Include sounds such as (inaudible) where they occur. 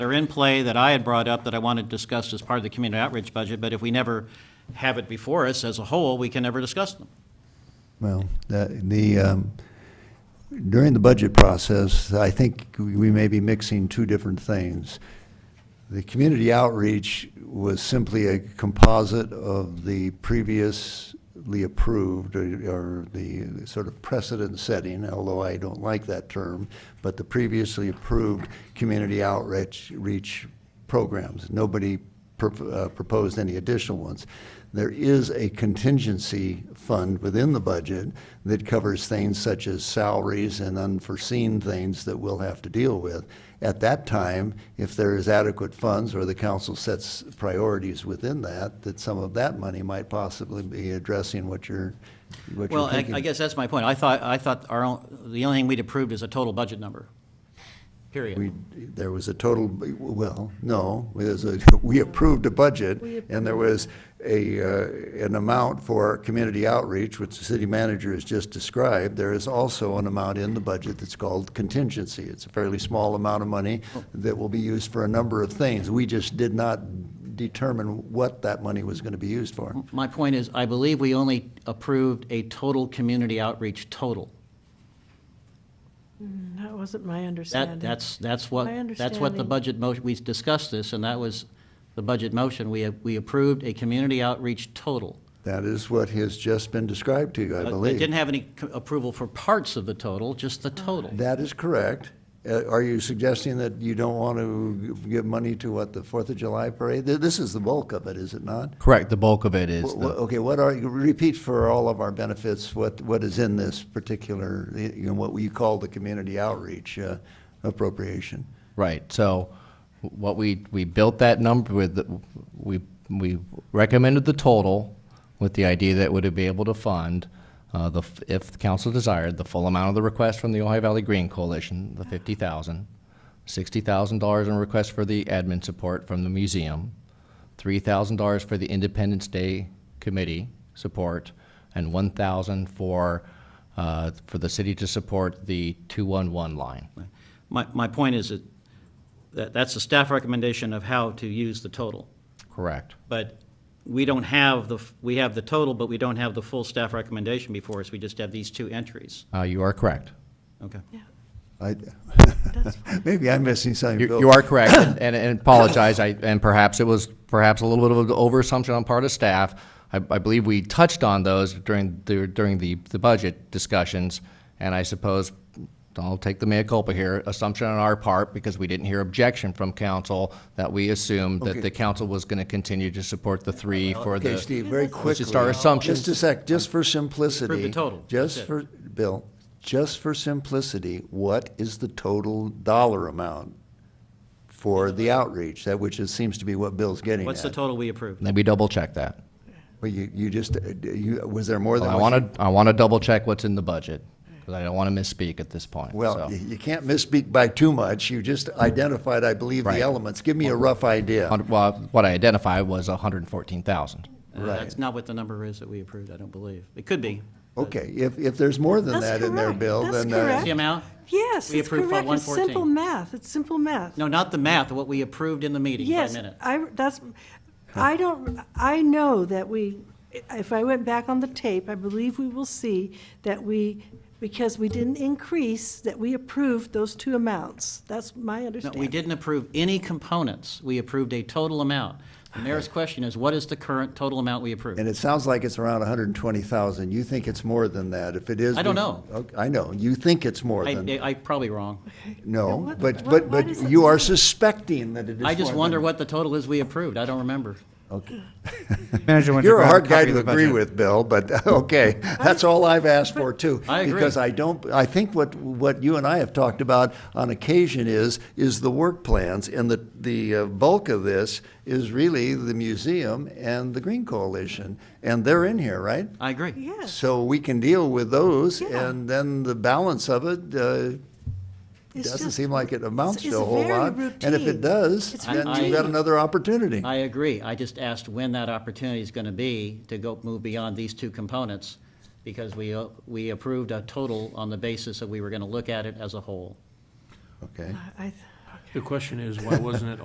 they're in play that I had brought up that I wanted to discuss as part of the community outreach budget, but if we never have it before us as a whole, we can never discuss them. Well, that, the, um, during the budget process, I think we may be mixing two different things. The community outreach was simply a composite of the previously approved uh, or or the sort of precedent setting, although I don't like that term, but the previously approved community outreach, reach programs. Nobody prop- uh, proposed any additional ones. There is a contingency fund within the budget that covers things such as salaries and unforeseen things that we'll have to deal with. At that time, if there is adequate funds or the council sets priorities within that, that some of that money might possibly be addressing what you're, what Well, you're I, thinking. I guess that's my point. I thought, I thought our own, the only thing we'd approved is a total budget number, We, period. there was a total, well, no, there's a, (laughs) we approved a budget, and there was a, uh, an amount for community outreach, which the city manager has just described. There is also an amount in the budget that's called contingency. It's a fairly small amount of money that will be used for a number of things. We just did not determine what that money was gonna be used for. My point is, I believe we only approved a total community outreach total. That wasn't my That, understanding. that's, that's what, that's what the understanding- budget motion, we discussed this, and that was the budget motion. We, we approved a community outreach total. That is what has just been described to you, I Uh, believe. It didn't have any co- approval for parts of the total, just the total. That is correct. Uh, Are you suggesting that you don't want to give money to what, the Fourth of July parade? Th- This is the bulk of it, is it not? Correct. The bulk of it is. Wh- the- wh- Okay, what are, you repeat for all of our benefits, what, what is in this particular, you know, what we call the community outreach uh, appropriation? Right. So what we, we built that number with, the- we, we recommended the total with the idea that would be able to fund, uh, the, f- if the council desired, the full amount of the request from the Ohio Valley Green Coalition, the fifty thousand, sixty thousand dollars in request for the admin support from the museum, three thousand dollars for the Independence Day Committee support, and one thousand for, uh, for the city to support the two-one-one line. My, my point is that- that, that's a staff recommendation of how to use the total. Correct. But we don't have the, f- we have the total, but we don't have the full staff recommendation before us. We just have these two entries. Uh, you are correct. Okay. I- (laughs) That's Maybe I'm missing something, You Bill. you are correct, and, and apologize, I, and perhaps it was, perhaps a little bit of an overassumption on part of staff. I, I believe we touched on those during, the during the, the budget discussions, and I suppose, I'll take the mea culpa here, assumption on our part, because we didn't hear objection from council, that we assumed Okay. that the council was gonna continue to support the three for the. Okay, Steve, very quickly. Let's just our assumptions. Just a sec, just for simplicity. Prove the total. Just That's it. for, Bill, just for simplicity, what is the total dollar amount for the outreach, that which is, seems to be what Bill's getting at? What's the total we approved? Let me double check that. Well, you, you just, uh, you, was there more than? Oh, I what you- wanna, I wanna double check what's in the budget, because I don't wanna misspeak at this point, Well, so. you you can't misspeak by too much, you just identified, I believe, the Right. elements. Give me a rough idea. Hundred- Well, what I identified was hundred and fourteen thousand. Uh, That's not what the number is that we approved, I don't believe. It could be. Okay, if, if there's more than That's that in there, correct. Bill, That's then. uh, correct. See amount? Yes, We it's approved Fund correct. It's 114. simple math. It's simple math. No, not the math, what we approved in the meeting by Yes, minute. I, that's, I don't, I know that we, if I went back on the tape, I believe we will see that we, because we didn't increase, that we approved those two amounts. That's my No, understanding. we didn't approve any components. We approved a total amount. The mayor's question is, what is the current total amount we approved? And it sounds like it's around 120,000. You think it's more than that. If it is. I don't we- know. Okay, I know. You think it's more I, than, I I'm probably wrong. no, What- but, what- but, what but is it? you are suspecting that it is more I just wonder than- what the total is we approved. I don't remember. Manager Winter. You're a grab hard guy copy of to the agree budget. with, Bill, but, (laughs) (laughs) okay. That's all I've asked for too. I agree. Because I don't, I think what, what you and I have talked about on occasion is, is the work plans. And the, the uh, bulk of this is really the museum and the Green Coalition. And they're in here, right? I agree. Yes. So we can deal with those, Yeah. and then the balance of it uh, It's doesn't just- seem like it amounts it's to a whole very lot. And if routine. it does, It's then routine. you've got another opportunity. I agree. I just asked when that opportunity is going to be to go, move beyond these two components, because we, uh, we approved a total on the basis that we were going to look at it as a whole. Okay. I- I- okay. The question is, why wasn't it